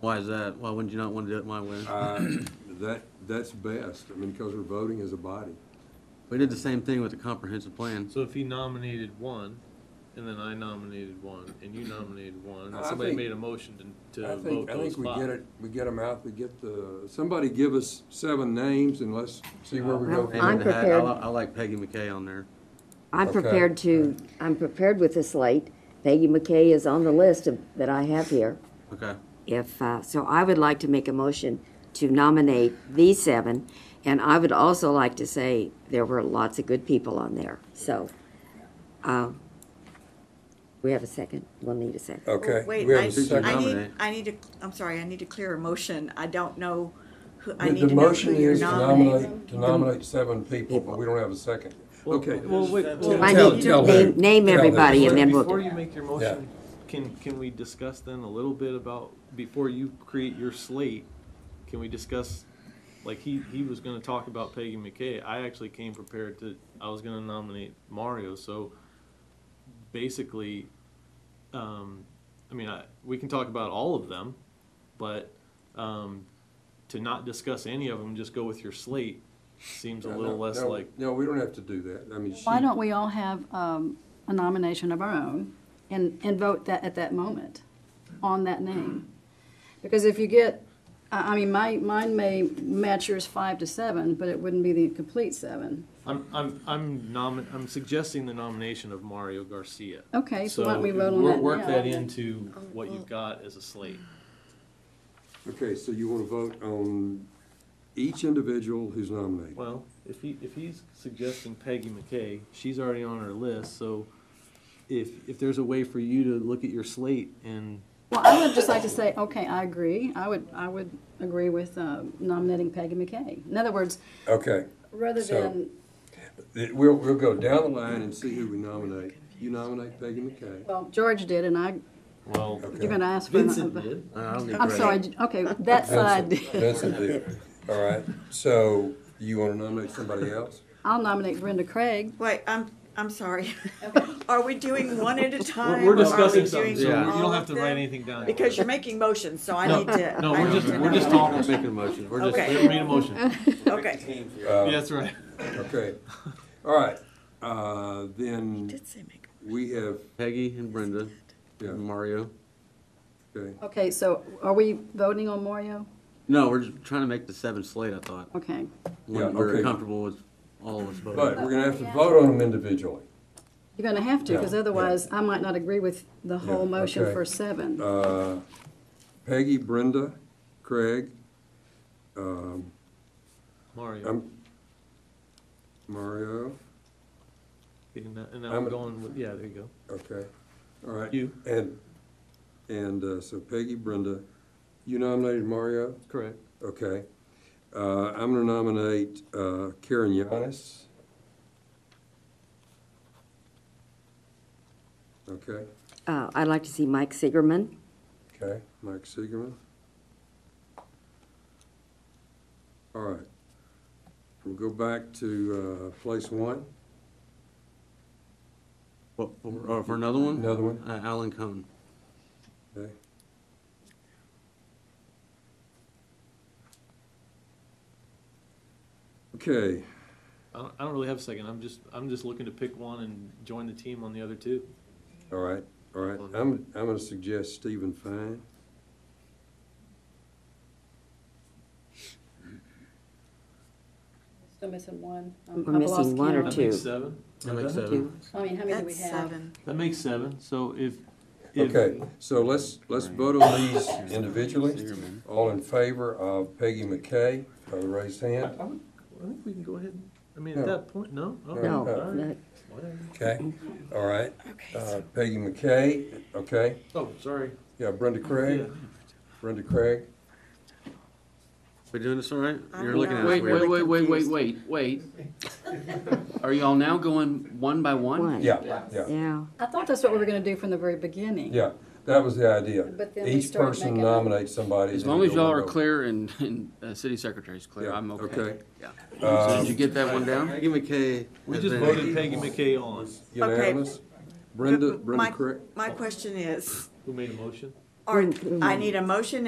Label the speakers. Speaker 1: Why is that? Why wouldn't you not want to do it my way?
Speaker 2: Uh, That, that's best, I mean, because we're voting as a body.
Speaker 1: We did the same thing with the comprehensive plan.
Speaker 3: So if he nominated one, and then I nominated one, and you nominated one,
Speaker 2: I
Speaker 3: and somebody
Speaker 2: think-
Speaker 3: made a motion to,
Speaker 2: I
Speaker 3: to vote
Speaker 2: think, I
Speaker 3: those
Speaker 2: think we get
Speaker 3: five.
Speaker 2: it, we get them out, we get the, somebody give us seven names and let's see where we go.
Speaker 1: Hey,
Speaker 2: from
Speaker 4: I'm
Speaker 1: man,
Speaker 2: there.
Speaker 1: I- I
Speaker 4: prepared.
Speaker 1: li- I like Peggy McKay on there.
Speaker 4: I'm
Speaker 2: Okay.
Speaker 4: prepared to, I'm prepared with this slate. Peggy McKay is on the list of- that I have here.
Speaker 1: Okay.
Speaker 4: If, uh, so I would like to make a motion to nominate these seven, and I would also like to say there were lots of good people on there, so. um, We have a second, we'll need a second.
Speaker 2: Okay.
Speaker 5: Oh, Wait,
Speaker 2: we have
Speaker 5: I,
Speaker 2: a
Speaker 5: I
Speaker 2: second.
Speaker 5: need,
Speaker 1: nominate.
Speaker 5: I need to, I'm sorry, I need to clear a motion. I don't know who, I
Speaker 2: The-
Speaker 5: need
Speaker 2: The
Speaker 5: to know who
Speaker 2: motion
Speaker 5: you're
Speaker 2: is to
Speaker 5: nominating.
Speaker 2: nominate, to nominate seven people, but we don't have a second. Okay.
Speaker 3: Well, wait, well,
Speaker 4: I
Speaker 2: Uh, Tell-
Speaker 4: need
Speaker 2: tell
Speaker 4: to
Speaker 2: her.
Speaker 4: name, name
Speaker 2: Tell her.
Speaker 4: everybody and then we'll.
Speaker 3: before you make your motion, can, can we discuss then a little bit about, before you create your slate, can we discuss, like, he, he was gonna talk about Peggy McKay, I actually came prepared to, I was gonna nominate Mario, so basically, um, I mean, I, we can talk about all of them, but, um, to not discuss any of them, just go with your slate, seems a
Speaker 2: No,
Speaker 3: little less
Speaker 2: no,
Speaker 3: like.
Speaker 2: No, we don't have to do that, I mean, she,
Speaker 6: Why don't we all have um, a nomination of our own and, and vote that, at that moment on that name? Because if you get, I, I mean, my, mine may match yours five to seven, but it wouldn't be the complete seven.
Speaker 3: I'm, I'm, I'm nomin, I'm suggesting the nomination of Mario Garcia.
Speaker 6: Okay, so why don't we vote on
Speaker 3: wor-
Speaker 6: that
Speaker 3: Work
Speaker 6: now?
Speaker 3: that into what
Speaker 5: Oh.
Speaker 3: you've got as a slate.
Speaker 2: okay, so you want to vote on each individual who's nominated?
Speaker 3: Well, if he, if he's suggesting Peggy McKay, she's already on our list, so if, if there's a way for you to look at your slate and,
Speaker 6: Well, I would just like to say, okay, I agree. I would, I would agree with uh, nominating Peggy McKay. In other words,
Speaker 2: Okay,
Speaker 6: rather
Speaker 2: So-
Speaker 6: than,
Speaker 2: It- we'll, we'll go down the line and see who we nominate. You nominate Peggy McKay.
Speaker 6: well, George did, and I,
Speaker 3: well,
Speaker 6: you're
Speaker 2: Okay.
Speaker 6: gonna ask for.
Speaker 3: Vincent did.
Speaker 1: I don't need
Speaker 6: I'm
Speaker 1: Greg.
Speaker 6: sorry, okay, that side
Speaker 2: Vincent-
Speaker 6: did.
Speaker 2: Vincent did. All right, so you want to nominate somebody else?
Speaker 6: I'll nominate Brenda Craig.
Speaker 5: Wait, I'm, I'm sorry. Are we doing one at a time?
Speaker 3: We're, we're
Speaker 5: or are we
Speaker 3: discussing something,
Speaker 5: doing
Speaker 3: so you
Speaker 1: Yeah.
Speaker 5: all
Speaker 3: don't have
Speaker 5: of
Speaker 3: to write
Speaker 5: them?
Speaker 3: anything down.
Speaker 5: Because you're making motions, so I
Speaker 3: No,
Speaker 5: need to.
Speaker 3: no,
Speaker 5: I
Speaker 3: we're
Speaker 5: need
Speaker 3: just-
Speaker 5: to
Speaker 3: we're
Speaker 5: know.
Speaker 3: just
Speaker 1: We're not making a motion. We're just,
Speaker 5: Okay.
Speaker 3: We made a motion.
Speaker 5: Okay.
Speaker 3: Yeah,
Speaker 2: Uh,
Speaker 3: That's right.
Speaker 2: Okay, all right, uh, then
Speaker 5: Did say make,
Speaker 2: we have,
Speaker 1: Peggy and Brenda
Speaker 2: Yeah.
Speaker 1: and Mario.
Speaker 2: okay,
Speaker 6: Okay, so are we voting on Mario?
Speaker 1: No, we're just trying to make the seven slate, I thought.
Speaker 6: Okay.
Speaker 2: Yeah,
Speaker 1: When we're
Speaker 2: okay.
Speaker 1: comfortable with all of us
Speaker 2: but
Speaker 1: voting.
Speaker 2: we're gonna have to vote on them individually.
Speaker 6: You're going to have to, because
Speaker 2: Yeah, yeah.
Speaker 6: otherwise I might not agree with the whole
Speaker 2: Yeah,
Speaker 6: motion
Speaker 2: okay.
Speaker 6: for seven.
Speaker 2: Uh, Peggy, Brenda, Craig, um,
Speaker 3: Mario,
Speaker 2: I'm, um, Mario,
Speaker 3: and that- and now
Speaker 2: I'm-
Speaker 3: we're going with, yeah, there you go.
Speaker 2: okay, all right.
Speaker 3: You.
Speaker 2: And, and, uh, so Peggy, Brenda, you nominated Mario?
Speaker 3: Correct.
Speaker 2: Okay. Uh, I'm going to nominate uh, Karen Yanis. Okay,
Speaker 4: Uh, I'd like to see Mike Siegerman.
Speaker 2: okay. Mike Siegerman. All right. We'll go back to uh, place one,
Speaker 1: What, for uh, for another one?
Speaker 2: another one,
Speaker 1: Uh, Alan Cohn.
Speaker 2: okay? Okay,
Speaker 3: I don't, I don't really have a second. I'm just, I'm just looking to pick one and join the team on the other two.
Speaker 2: all right, all right. I'm, I'm going to suggest Stephen Fine.
Speaker 6: Still missing one. Um,
Speaker 4: We're I've missing lost one
Speaker 3: That
Speaker 4: or count. two.
Speaker 3: makes seven.
Speaker 1: That makes
Speaker 3: Okay.
Speaker 1: seven.
Speaker 6: I mean, how many do we
Speaker 5: that's
Speaker 6: have?
Speaker 5: seven.
Speaker 3: That makes seven. So if, if
Speaker 2: Okay, so let's, let's vote on these individually.
Speaker 1: Siegerman.
Speaker 2: All in favor of Peggy McKay, by the raised
Speaker 3: I,
Speaker 2: hand?
Speaker 3: I would, I think we can go ahead. and- I mean,
Speaker 2: No.
Speaker 3: at that point, no. Okay,
Speaker 2: No,
Speaker 3: all right,
Speaker 4: no.
Speaker 3: whatever.
Speaker 2: Okay, all right.
Speaker 5: Okay.
Speaker 2: Uh, Peggy McKay, okay.
Speaker 3: Oh, sorry.
Speaker 2: Yeah, Brenda Craig,
Speaker 3: Yeah.
Speaker 2: Brenda Craig.
Speaker 1: We doing this all right?
Speaker 5: I
Speaker 1: You're
Speaker 5: don't
Speaker 1: looking
Speaker 5: know.
Speaker 1: at us
Speaker 7: Wait, wait,
Speaker 1: weird.
Speaker 7: wait, wait, wait,
Speaker 5: confused.
Speaker 7: wait, wait. Are y'all now going one by one?
Speaker 4: One.
Speaker 2: Yeah, yeah,
Speaker 4: Yeah.
Speaker 6: I thought that's what we were going to do from the very beginning.
Speaker 2: yeah. That was the idea.
Speaker 6: But then we
Speaker 2: Each
Speaker 6: start
Speaker 2: person
Speaker 6: making-
Speaker 2: nominates somebody.
Speaker 7: As
Speaker 2: and
Speaker 7: long
Speaker 2: then
Speaker 7: as
Speaker 2: we'll
Speaker 7: y'all are
Speaker 2: vote.
Speaker 7: clear and, and uh, city secretary's clear,
Speaker 2: Yeah,
Speaker 7: I'm okay.
Speaker 2: okay.
Speaker 7: Yeah. So
Speaker 2: Um,
Speaker 7: did you get that one down?
Speaker 1: Peggy McKay.
Speaker 3: We
Speaker 1: has
Speaker 3: just
Speaker 1: been-
Speaker 3: voted Peggy McKay on.
Speaker 2: Unanimous? Brenda,
Speaker 5: But my-
Speaker 2: Brenda Craig?
Speaker 5: My question is,
Speaker 3: Who made a motion?
Speaker 5: are,
Speaker 4: Mm, mm.
Speaker 5: I need a motion